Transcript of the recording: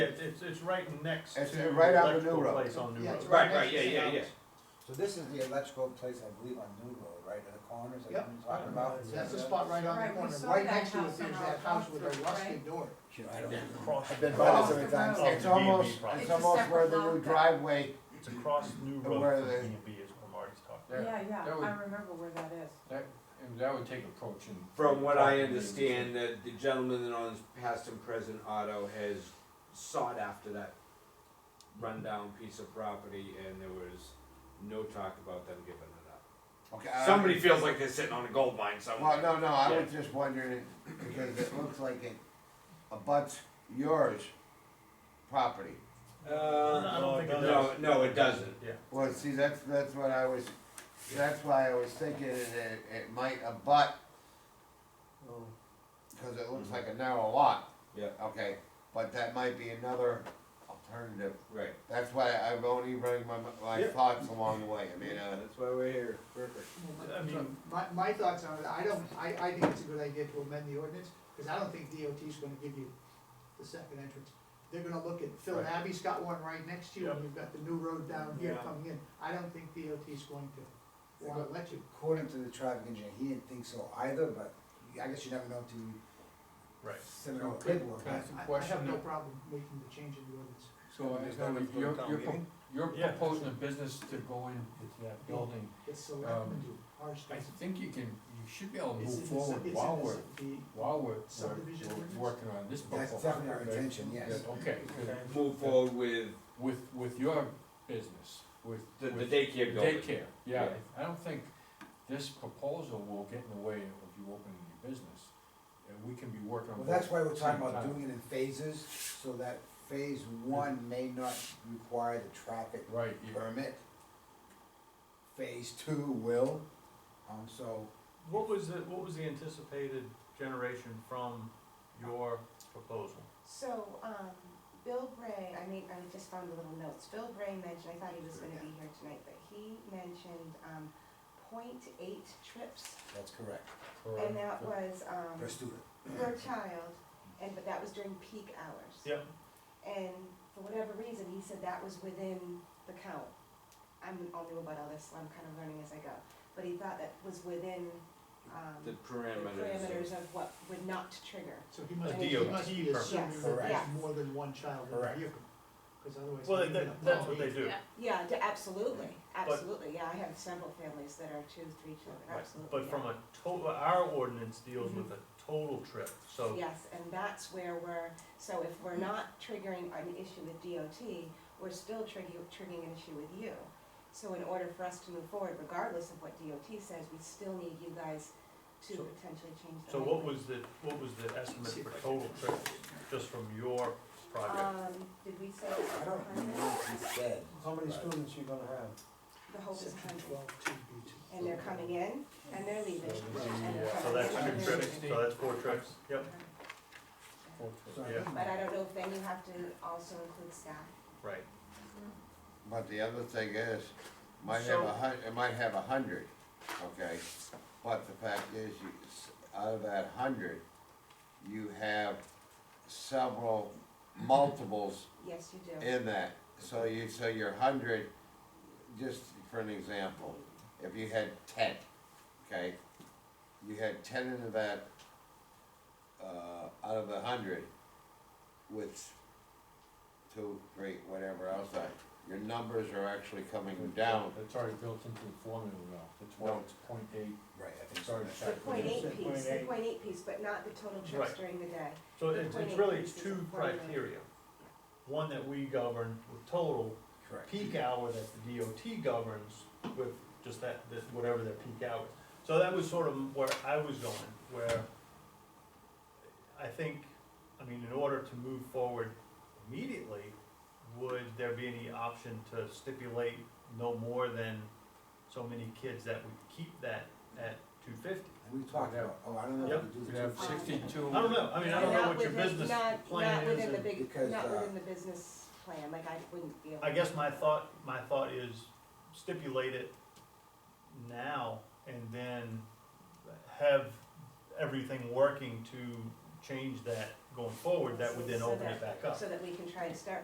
It's, it's, it's right next It's to right the on the electrical new road. place on New Yeah, Road. it's Right, right, yeah, yeah, yeah. So this is the electrical place, I believe, on New Road, right, at the corners that Yep. you've been talking about? That's the spot right on the Right, we corner, saw right that next to it house is on that our house with walkthrough, a rusted right? door. I don't even- Across- I've been by Across this the every time, Oh, road. it's almost, It's a it's almost separate where the lot new that- driveway, It's across New Uh, Road where from B the- and B is what Marty's talking Yeah, yeah, that would- I remember where that is. And that would take approach and. From what I understand, that the gentleman that owns past and present auto has sought after that rundown piece of property and there was no talk about them giving it up. okay. Uh, I- Somebody feels like they're sitting on a gold mine Well, somewhere. no, no, I Yeah. was just wondering, because it looks like it abuts yours property. about. No, I Uh, don't think it no, does. no, it doesn't. Yeah, Well, see, that's, that's what I was, that's why I was thinking that it, it might abut, Oh. cause it looks like a narrow lot. Yeah. Okay, but that might be another alternative Right. That's why I'm only running my, my Yeah. thoughts along the way, I mean, uh, That's why we're here. Perfect. I mean- My, my thoughts on it, I don't, I, I think it's a good idea to amend the ordinance, cause I don't think DOT's gonna give you the second entrance. They're gonna look at, Phil Right. Abbey's got one right next to you, Yep. and you've got the new road down here Yeah. coming in, I don't think DOT's going to wanna let you. According to the traffic engineer, he didn't think so either, but I guess you never know till you right. send it on paperwork. Can I ask a I, I have question? no problem making the change in the ordinance. So, there's no- you're, you're, pro- you're Yeah. proposing a business to go into that building. It's selectmen Um, do, ours I doesn't. think you can, you should be able to It's move in the- it's forward in while the- we're, the- while we're, we're- Subdivision we're ordinance? working on this That's proposal. definitely our right? intention, Yeah, yes. Okay, good. Move forward with With, with your business, with. the, the with daycare building. Daycare, yeah, Yeah. I don't think this proposal will get in the way of you opening your business. And we can be working on. Well, both that's why we're talking at the about same doing it in phases, so that phase one may not require the traffic time. Right, you- permit. Phase two will, um, so What was the, what was the anticipated generation from your proposal? So, um, Bill Bray, I mean, I just found the little notes. Bill Bray mentioned, I thought he was gonna be here tonight, but he mentioned, um, point eight trips. that's correct, And correct. that was, um, per student. per child, and, but that was during peak hours. Yep. And for whatever reason, he said that was within the count. I'm all new about all this, so I'm kind of learning as I go. But he thought that was within, um, The the parameters. parameters of what would not trigger. So he must, The he must DOT be assuming permit. that there's Yes. more than one child in the Correct. vehicle, cause otherwise. Well, he'd be in a that, that's what problem. they do. Yeah, d- absolutely, absolutely, yeah, I have several families that are two, three children, Right. absolutely. But Mm-hmm. from a total, our ordinance deals with a total trip, so. Yes, and that's where we're, so if we're not triggering an issue with DOT, we're still triggering, triggering an issue with you. So in order for us to move forward, regardless of what DOT says, we still need you guys to So- potentially change the So what language. was the, what was the estimate for total trips, just from your project? Um, did we say? I don't remember what he said. How many but- students you gonna have? The hope is Section hundred, twelve, two B two. and they're coming in, and they're leaving. So this is, and they're uh, So coming that's in, and two they're trips, so that's four trips, yep, leaving. So I Yeah. think- But I don't know if then you have to also include staff. right. But the other thing is, might have So- a hun, it might have a hundred, okay, but the fact is, you, s- out of that hundred, you have several multiples Yes, you do. in that, so you, so your hundred, just for an example, if you had ten, okay? You had ten into that, uh, out of a hundred, which, two, three, whatever else, I, your numbers are actually coming down. It's already built into the formula now, the No. twelve, it's point eight, Right, I think sorry. so. The point Yeah. eight piece, the 0.8. point eight piece, but not the total trips Right. during the day. So it's, it's really, it's two Right. criteria. One that we govern with total, Correct. peak hour that the DOT governs with just that, this, whatever their peak hour. So that was sort of where I was going, where I think, I mean, in order to move forward immediately, would there be any option to stipulate no more than so many kids that would keep that at two fifty? And we talked about, oh, I don't know if we do we the have two. sixty-two. I don't know, I mean, I don't know Not what your within- business not- plan Not is within the and- big, Because, not uh, within the business plan, like I wouldn't be able. I to- guess my thought, my thought is stipulate it now and then have everything working to change that going forward, that would then So open it that- back up. So that we can try and start